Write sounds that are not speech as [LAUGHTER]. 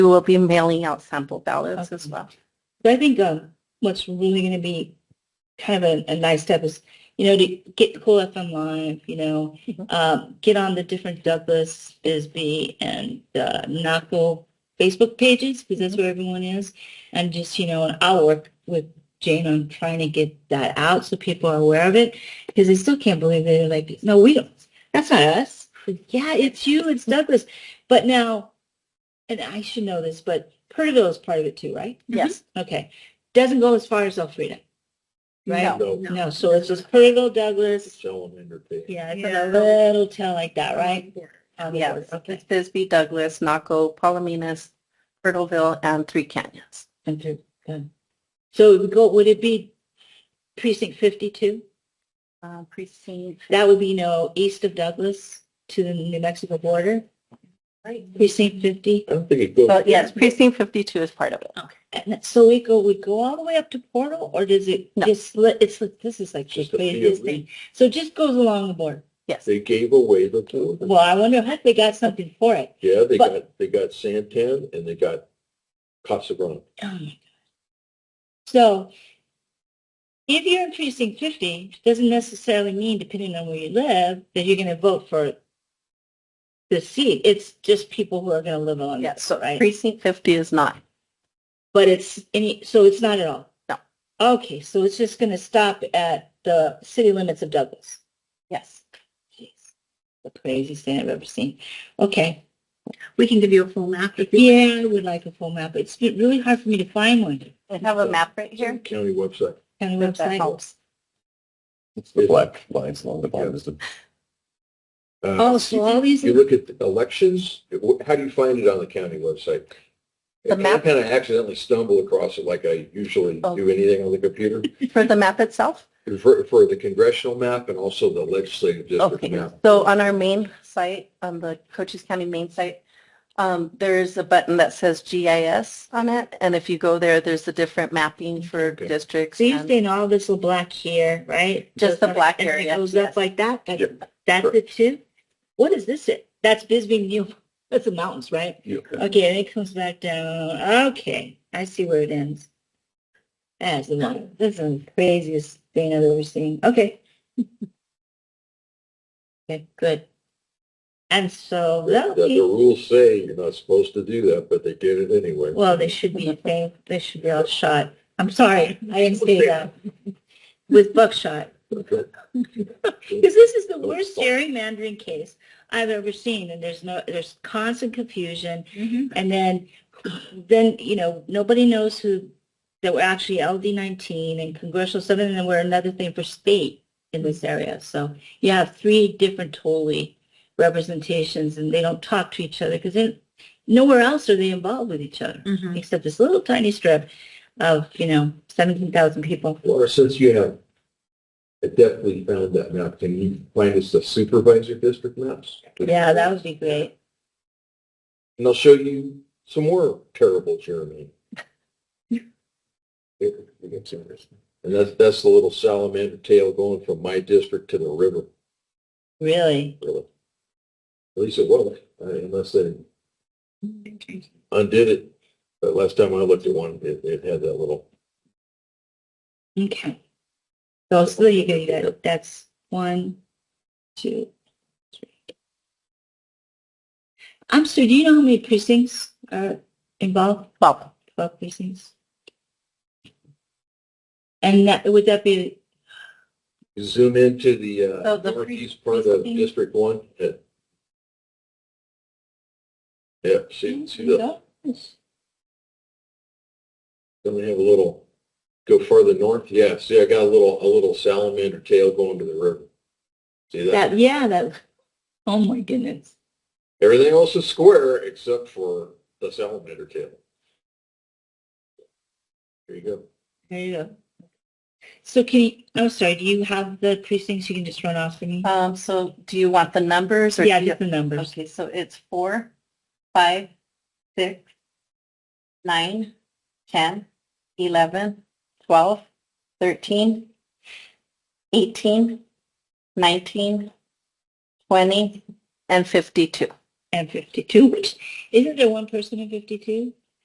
We will be mailing out sample ballots as well. But I think um, what's really going to be kind of a, a nice step is, you know, to get cool FM Live, you know, Mhm. um, get on the different Douglas, Bisbee, and uh, Naco Facebook pages because that's where everyone is, and just you know, and I'll work with Jane on trying to get that out so people are aware of it because they still can't believe it. They're like, no, we don't. That's not us. Yeah, it's you. It's Douglas. But now, and I should know this, but Perterville is part of it too, right? Mm-hmm. Yes. Okay. Doesn't go as far as Elfrida, right? No. No. so it's just Perterville, Douglas. Salamander pig. Yeah, it's Yeah. Um, on a little town like that, right? On the Yes, board, Okay. it's Bisbee, Douglas, Naco, Palominas, Turtleville, and Three Canyons. And through, good. So it would go, would it be precinct 52? Uh, Precinct, That would be, you know, east of Douglas to the New Mexico border, right? precinct 50. I don't think it goes. So yes, precinct 52 is part of it. And that- so we go, would go all the way up to Portal or does it No. just slit? It's like, this is like the Just a craziest field. thing. So it just goes along the border. Yes. They gave away the border. Well, I wonder if they got something for it. Yeah, they But- got, they got Santan and they got Casa Grande. Oh my God. So if you're in precinct 50, doesn't necessarily mean, depending on where you live, that you're going to vote for the seat. It's just people who are going to live on Yes, that, so right? precinct 50 is not. But it's any, so it's not at all? No. Okay, so it's just going to stop at the city limits of Douglas. Yes. Jeez, The craziest thing I've ever seen. Okay. We can give you a full map if Yeah, I would like a full map. It's been really hard for me to find one. I have a map right here. County website. County if that website. helps. It's the black lines along the bottom is the Uh, Oh, so all these. You look at the elections, it- wh- how do you find it on the county website? The I map- kind of accidentally stumble across it like I usually Oh. do anything on the computer. For the map itself? For, for the congressional map and also the legislative district Okay, map. so on our main site, on the Cochise County main site, um, there is a button that says GIS on it, and if you go there, there's the different mapping for Okay. districts. So you're and- saying all this little black here, right? Just the Goes up- black and it area, Goes yes. up like that? That's- Yep. That's it too? What is this? It That's Bisbee, New, [LAUGHS] that's the mountains, right? You- Okay, and it comes back down. Okay, I see where it ends. That's the one, this is the craziest thing I've ever seen. Okay. [LAUGHS] Okay, good. And so, The the okay, rules say you're not supposed to do that, but they did it anyway. well, they should be, they, they should be all shot. I'm sorry, I didn't say that. With buckshot. Because this is the Oh, worst fuck. gerrymandering case I've ever seen, and there's no, there's constant confusion, Mhm. and then, then, you know, nobody knows who, that we're actually LD nineteen and congressional seven, and then we're another thing for state in this area, so you have three different totally representations, and they don't talk to each other, because then, nowhere else are they involved with each other, except this little tiny strip of, you know, seventeen thousand people. Laura, since you have adeptly found that map, can you find us the supervisor district maps? Yeah, that would be great. And I'll show you some more terrible Germany. It- it's interesting. And that's, that's the little salamander tail going from my district to the river, Really? really. At least it was, uh, unless they undid it. But last time I looked at one, it, it had that little. Okay. So, so you can, that, that's one, two, three. I'm sorry, do you know how many precincts are involved? Well, Twelve precincts? And that, would that be, You Zoom into the So uh, the pre- northeast part of precinct- District One. uh, Yeah, see, see that, then we have a little, go further north, yeah, see, I got a little, a little salamander tail going to the river. See that? that, yeah, that, oh my goodness. Everything else is square except for the salamander tail. There you go. There you go. So can you, I'm sorry, do you have the precincts you can just run off for me? um, so do you want the numbers or? Yeah, do you- just the numbers. Okay, so it's four, five, six, nine, ten, eleven, twelve, thirteen, eighteen, nineteen, twenty, and fifty-two. and 52, which, isn't there one person in 52?